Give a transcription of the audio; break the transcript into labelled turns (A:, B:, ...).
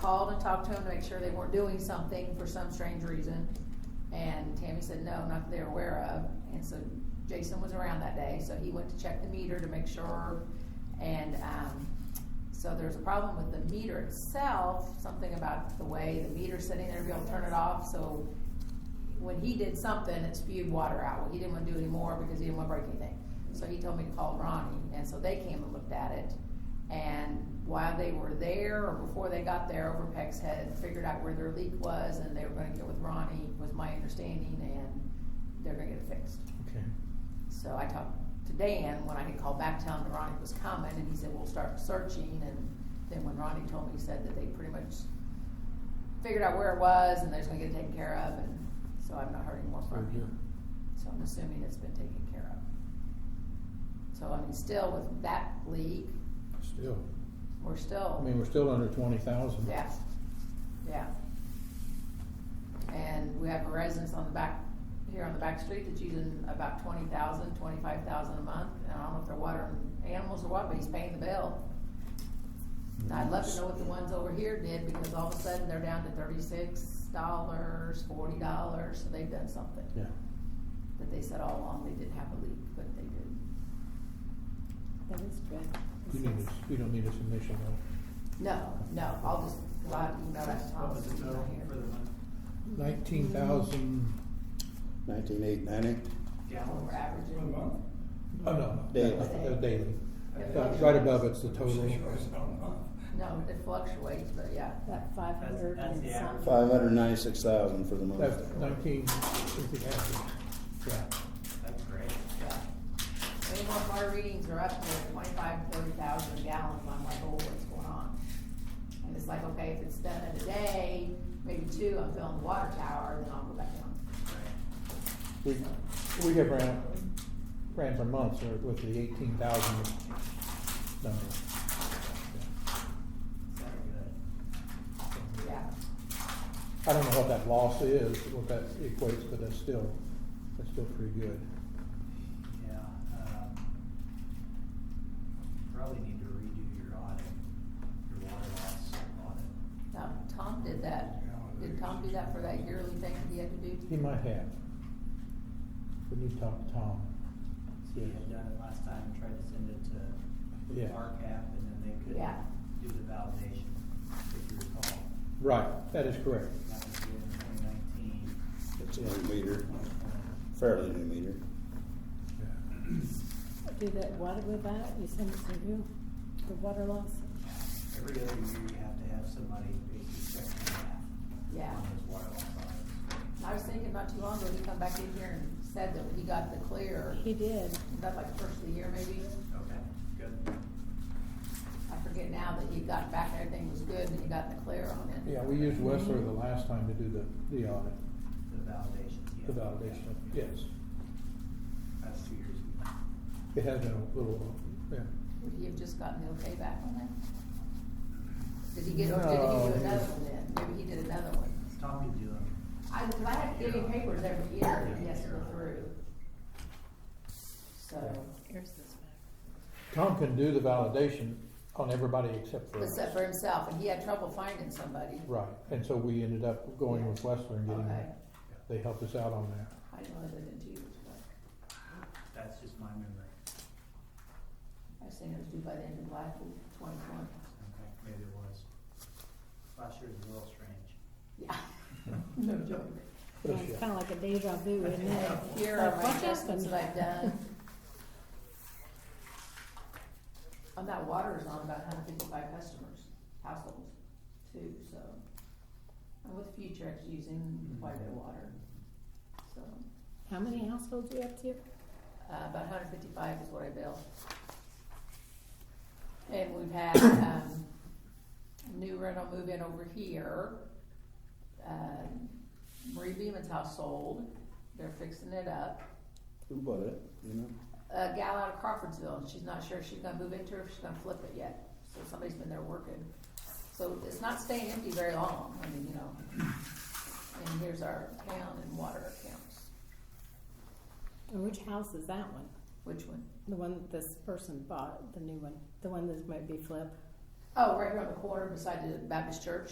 A: called and talked to them to make sure they weren't doing something for some strange reason. And Tammy said, no, not that they're aware of. And so Jason was around that day, so he went to check the meter to make sure. And, um, so there's a problem with the meter itself, something about the way the meter's sitting there, to be able to turn it off, so when he did something, it spewed water out. Well, he didn't wanna do any more because he didn't wanna break anything. So he told me to call Ronnie, and so they came and looked at it. And while they were there, or before they got there, Overpex had figured out where their leak was, and they were gonna get with Ronnie, was my understanding, and they're gonna get it fixed.
B: Okay.
A: So I talked to Dan when I had called back, telling him that Ronnie was coming, and he said, we'll start searching, and then when Ronnie told me, he said that they pretty much figured out where it was, and they're just gonna get it taken care of, and so I've not heard any more from
B: Very good.
A: him. So I'm assuming it's been taken care of. So I mean, still with that leak,
B: Still,
A: we're
B: I
A: still.
B: mean, we're still under twenty thousand.
A: Yeah, yeah. And we have a residence on the back, here on the back street that's using about twenty thousand, twenty-five thousand a month. And I don't know if they're watering animals or what, but he's paying the bill. And I'd love to know what the ones over here did, because all of a sudden they're down to thirty-six dollars, forty dollars, so they've done something.
B: Yeah,
A: That they said all along they didn't have a leak, but they did.
C: That is correct.
B: you need a, you don't need a submission though.
A: No, no, I'll just, well, I, you know, that's
D: What was
A: Thomas,
D: the
A: he's not
D: total for the
A: here.
D: one
B: Nineteen thousand,
E: Nineteen eight ninety?
D: gallon?
A: We're averaging.
D: For the month?
B: oh no,
E: Daily.
B: that's- that's daily.
A: It
B: Right-
A: fluctuates.
B: Right above it's the total.
A: No, it fluctuates, but yeah.
C: That five
D: That's-
C: hundred
D: that's
C: and
D: the
C: some.
D: average.
E: Five hundred ninety-six thousand for the month.
B: That's nineteen, if you have to. yeah.
D: That's great.
A: Yeah. Any more car readings are up to twenty-five, thirty thousand gallons, and I'm like, oh, what's going on? And it's like, okay, if it's done in a day, maybe two, I'm filling the water tower, then I'll go back down.
B: We, we have ran, ran for months or with the eighteen thousand number.
D: Very good.
B: Yeah.
A: Yeah,
B: I don't know what that loss is, what that equates, but that's still, that's still pretty good.
D: Yeah, um, probably need to redo your audit, your water loss audit.
A: now, Tom did that, did Tom do that for that yearly thing that he had to do?
B: He might have. We need to talk to Tom.
D: So you had done it last time, tried to send it to
B: Yeah.
D: RCAP and then they couldn't
A: Yeah.
D: do the validation, if you recall.
B: Right, that is correct.
D: That was due in twenty nineteen,
E: It's a new meter,
D: twenty twenty.
E: fairly new meter.
C: Do that water go out, you send it to who? The water loss?
D: Every other year, you have to have somebody basically check your math.
A: Yeah.
D: On those water loss audits.
A: I was thinking not too long ago, he come back in here and said that he got the clear,
C: He did.
A: was that like first of the year maybe?
D: Okay, good.
A: I forget now that he got back, everything was good, and he got the clear on it.
B: Yeah, we used Westler the last time to do the, the audit,
D: The validations, yeah.
B: the validation, yes.
D: That's two years ago.
B: It has been a little, yeah.
A: Would he have just gotten the okay back on that? Did he get, or did he do
B: No.
A: another one then? Maybe he did another one.
D: It's Tommy doing,
A: I, cause I have to give him papers every year that he has to go through. So,
C: Here's this back.
B: Tom can do the validation on everybody except for us.
A: except for himself, and he had trouble finding somebody.
B: Right, and so we ended up going with Westler and getting,
A: Okay.
B: they helped us out on that.
A: I didn't know that in two years, but
D: that's just my memory.
A: I was thinking it was due by the end of last week, twenty twenty.
D: Okay, maybe it was. Last year was a little strange.
A: Yeah, no joke.
B: But
C: It's
B: yeah.
C: kinda like a deja vu, isn't it?
A: Here
C: Like,
A: are my
C: what
A: adjustments
C: happened?
A: that I've done. On that water is on about hundred fifty-five customers, households, too, so. And with Futrex using quite a bit of water, so,
C: How many households we up to?
A: uh, about hundred fifty-five is what I bill. And we've had, um, new rental move in over here. Um, Marie Beeman's house sold, they're fixing it up.
E: Who bought it, you know?
A: a gal out of Crawfordsville, and she's not sure if she's gonna move into it or if she's gonna flip it yet. So somebody's been there working. So it's not staying empty very long, I mean, you know. And here's our town and water accounts.
C: And which house is that one?
A: Which one?
C: The one that this person bought, the new one, the one that might be flipped?
A: Oh, right here on the corner beside the Baptist church.